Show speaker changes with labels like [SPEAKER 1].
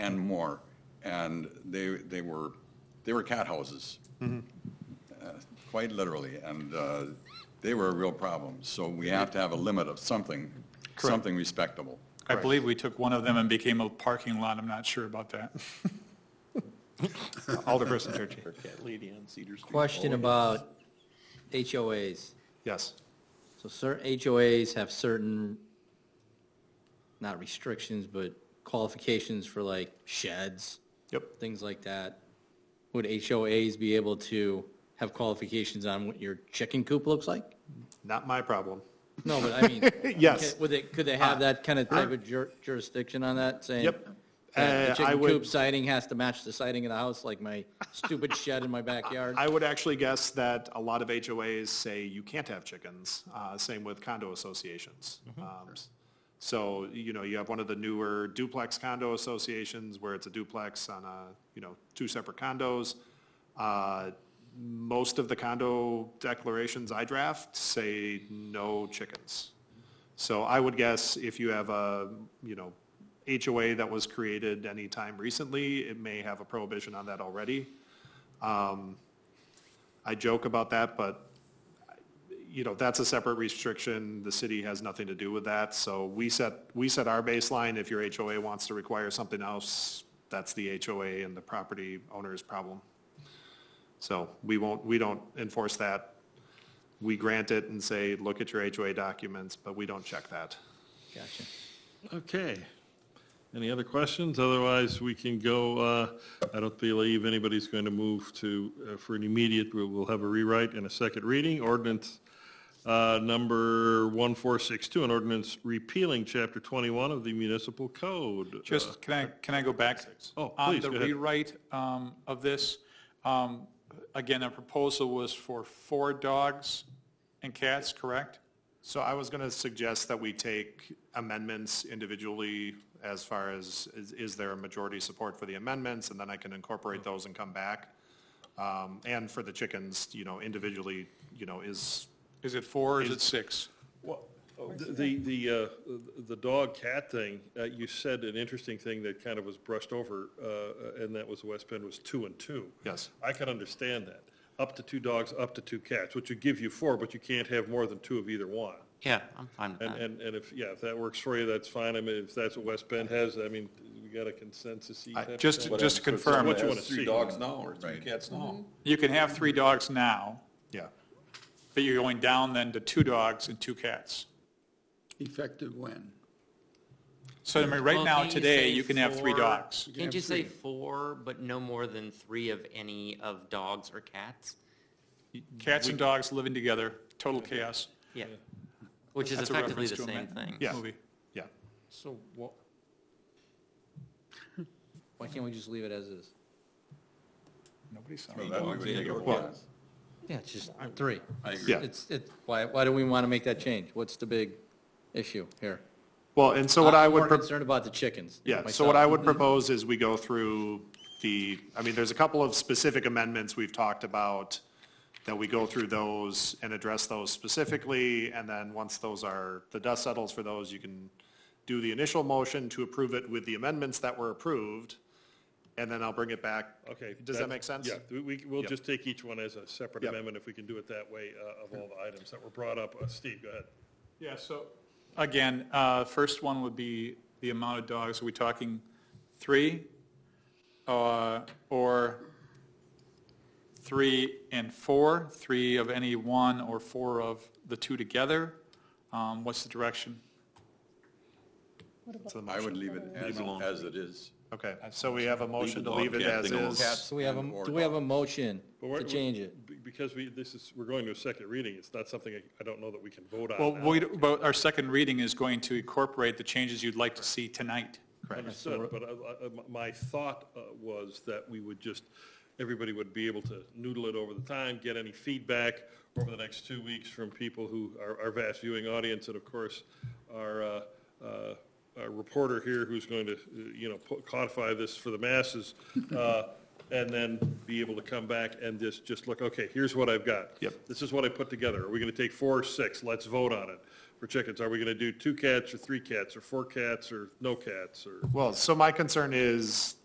[SPEAKER 1] and more. And they, they were, they were cat houses. Uh, Quite literally, and uh, they were a real problem. So we have to have a limit of something, something respectable.
[SPEAKER 2] I believe we took one of them and became a parking lot. I'm not sure about that. Alderperson Turkey.
[SPEAKER 3] Cat lady on Cedar Street.
[SPEAKER 4] Question about HOAs.
[SPEAKER 2] Yes.
[SPEAKER 4] So certain HOAs have certain, not restrictions, but qualifications for like sheds,
[SPEAKER 2] Yep.
[SPEAKER 4] things like that. Would HOAs be able to have qualifications on what your chicken coop looks like?
[SPEAKER 5] Not my problem.
[SPEAKER 4] No, but I mean.
[SPEAKER 5] Yes. Uh,
[SPEAKER 4] okay, Would they, could they have that kind of type of jur- jurisdiction on that, saying?
[SPEAKER 5] Yep.
[SPEAKER 4] that
[SPEAKER 5] Uh, I
[SPEAKER 4] The chicken
[SPEAKER 5] would-
[SPEAKER 4] coop siding has to match the siding in the house, like my stupid shed in my backyard?
[SPEAKER 5] I would actually guess that a lot of HOAs say you can't have chickens, uh, same with condo associations. Um, So, you know, you have one of the newer duplex condo associations where it's a duplex on a, you know, two separate condos. Uh, Most of the condo declarations I draft say no chickens. So I would guess if you have a, you know, HOA that was created any time recently, it may have a prohibition on that already. I joke about that, but, you know, that's a separate restriction. The city has nothing to do with that. So we set, we set our baseline. If your HOA wants to require something else, that's the HOA and the property owner's problem. So we won't, we don't enforce that. We grant it and say, look at your HOA documents, but we don't check that.
[SPEAKER 4] Gotcha.
[SPEAKER 3] Okay. Any other questions? Otherwise, we can go, uh, I don't believe anybody's going to move to, uh, for an immediate, we will have a rewrite and a second reading. Ordinance uh, number 1462, an ordinance repealing Chapter 21 of the Municipal Code. Uh,
[SPEAKER 2] Just, can I, can I go back?
[SPEAKER 3] Oh,
[SPEAKER 2] On
[SPEAKER 3] please,
[SPEAKER 2] the
[SPEAKER 3] go ahead.
[SPEAKER 2] rewrite um, of this, um, again, a proposal was for four dogs and cats, correct?
[SPEAKER 5] So I was going to suggest that we take amendments individually as far as, is- is there a majority support for the amendments? And then I can incorporate those and come back. Um, And for the chickens, you know, individually, you know, is,
[SPEAKER 2] Is it four or is it six?
[SPEAKER 3] Well, the, the, uh, the dog cat thing, uh, you said an interesting thing that kind of was brushed over, uh, and that was West Bend was two and two.
[SPEAKER 5] Yes.
[SPEAKER 3] I can understand that. Up to two dogs, up to two cats, which would give you four, but you can't have more than two of either one.
[SPEAKER 6] Yeah, I'm fine with
[SPEAKER 3] And,
[SPEAKER 6] that.
[SPEAKER 3] and, and if, yeah, if that works for you, that's fine. I mean, if that's what West Bend has, I mean, we got a consensus.
[SPEAKER 2] Just, just to confirm, Mm-hmm.
[SPEAKER 3] What you want to
[SPEAKER 7] Three
[SPEAKER 3] see.
[SPEAKER 7] dogs now or three
[SPEAKER 1] Right.
[SPEAKER 7] cats now?
[SPEAKER 2] you can have three dogs now,
[SPEAKER 5] yeah.
[SPEAKER 2] but you're going down then to two dogs and two cats.
[SPEAKER 7] Effective when?
[SPEAKER 2] So I mean, right
[SPEAKER 6] Well,
[SPEAKER 2] now,
[SPEAKER 6] can't you
[SPEAKER 2] today,
[SPEAKER 6] say
[SPEAKER 2] you can have three
[SPEAKER 6] four-
[SPEAKER 2] dogs.
[SPEAKER 6] Can't you say four, but no more than three of any of dogs or cats?
[SPEAKER 2] Cats and dogs living together, total chaos.
[SPEAKER 6] Yeah. Which is
[SPEAKER 2] That's a
[SPEAKER 6] effectively
[SPEAKER 2] reference
[SPEAKER 6] the
[SPEAKER 2] to
[SPEAKER 6] same
[SPEAKER 2] amendment.
[SPEAKER 6] thing.
[SPEAKER 5] Yeah.
[SPEAKER 2] Movie.
[SPEAKER 5] Yeah.
[SPEAKER 3] So what?
[SPEAKER 4] Why can't we just leave it as is?
[SPEAKER 2] Nobody saw
[SPEAKER 1] So
[SPEAKER 2] it.
[SPEAKER 1] that way we take a
[SPEAKER 7] Well-
[SPEAKER 1] pass.
[SPEAKER 4] Yeah, it's just three.
[SPEAKER 1] I agree.
[SPEAKER 5] Yeah.
[SPEAKER 4] It's, it's, why, why do we want to make that change? What's the big issue here?
[SPEAKER 5] Well, and so what I
[SPEAKER 4] I'm
[SPEAKER 5] would.
[SPEAKER 4] more
[SPEAKER 5] prop-
[SPEAKER 4] concerned about the chickens.
[SPEAKER 5] Yeah, so
[SPEAKER 4] myself.
[SPEAKER 5] what I would propose is we go through the, I mean, there's a couple of specific amendments we've talked about, that we go through those and address those specifically, and then once those are, the dust settles for those, you can do the initial motion to approve it with the amendments that were approved, and then I'll bring it back.
[SPEAKER 3] Okay.
[SPEAKER 5] Does that
[SPEAKER 3] that's-
[SPEAKER 5] make sense?
[SPEAKER 3] Yeah, we- we, we'll
[SPEAKER 5] Yep.
[SPEAKER 3] just take each one as a separate
[SPEAKER 5] Yep.
[SPEAKER 3] amendment if we can do it that way uh, of all the items that were brought up. Uh, Steve, go ahead.
[SPEAKER 2] Yeah, so, again, uh, first one would be the amount of dogs. Are we talking three? Uh, Or three and four? Three of any one or four of the two together? Um, What's the direction?
[SPEAKER 1] I would leave it as, as it is.
[SPEAKER 5] Okay, so we have a motion
[SPEAKER 7] the
[SPEAKER 5] to leave
[SPEAKER 7] dog
[SPEAKER 5] it
[SPEAKER 7] cat
[SPEAKER 5] as
[SPEAKER 7] thing alone.
[SPEAKER 5] is.
[SPEAKER 1] Cats
[SPEAKER 4] So we have a,
[SPEAKER 1] and or
[SPEAKER 4] do we have a
[SPEAKER 1] dogs.
[SPEAKER 4] motion
[SPEAKER 3] But we're-
[SPEAKER 4] to change it?
[SPEAKER 3] be- Because we, this is, we're going to a second reading, it's not something, I- I don't know that we can vote on.
[SPEAKER 2] Well,
[SPEAKER 3] now.
[SPEAKER 2] we, but our second reading is going to incorporate the changes you'd like to see tonight.
[SPEAKER 3] Understood, but I- I- my- my thought uh, was that we would just, everybody would be able to noodle it over the time, get any feedback over the next two weeks from people who, our our vast viewing audience, and of course, our uh, uh, our reporter here who's going to, uh, you know, po- codify this for the masses. Uh, and then be able to come back and just, just look, okay, here's what I've got.
[SPEAKER 5] Yep.
[SPEAKER 3] This is what I put together. Are we going to take four or six? Let's vote on it for chickens. Are we going to do two cats or three cats or four cats or no cats or?
[SPEAKER 5] Well, so my concern is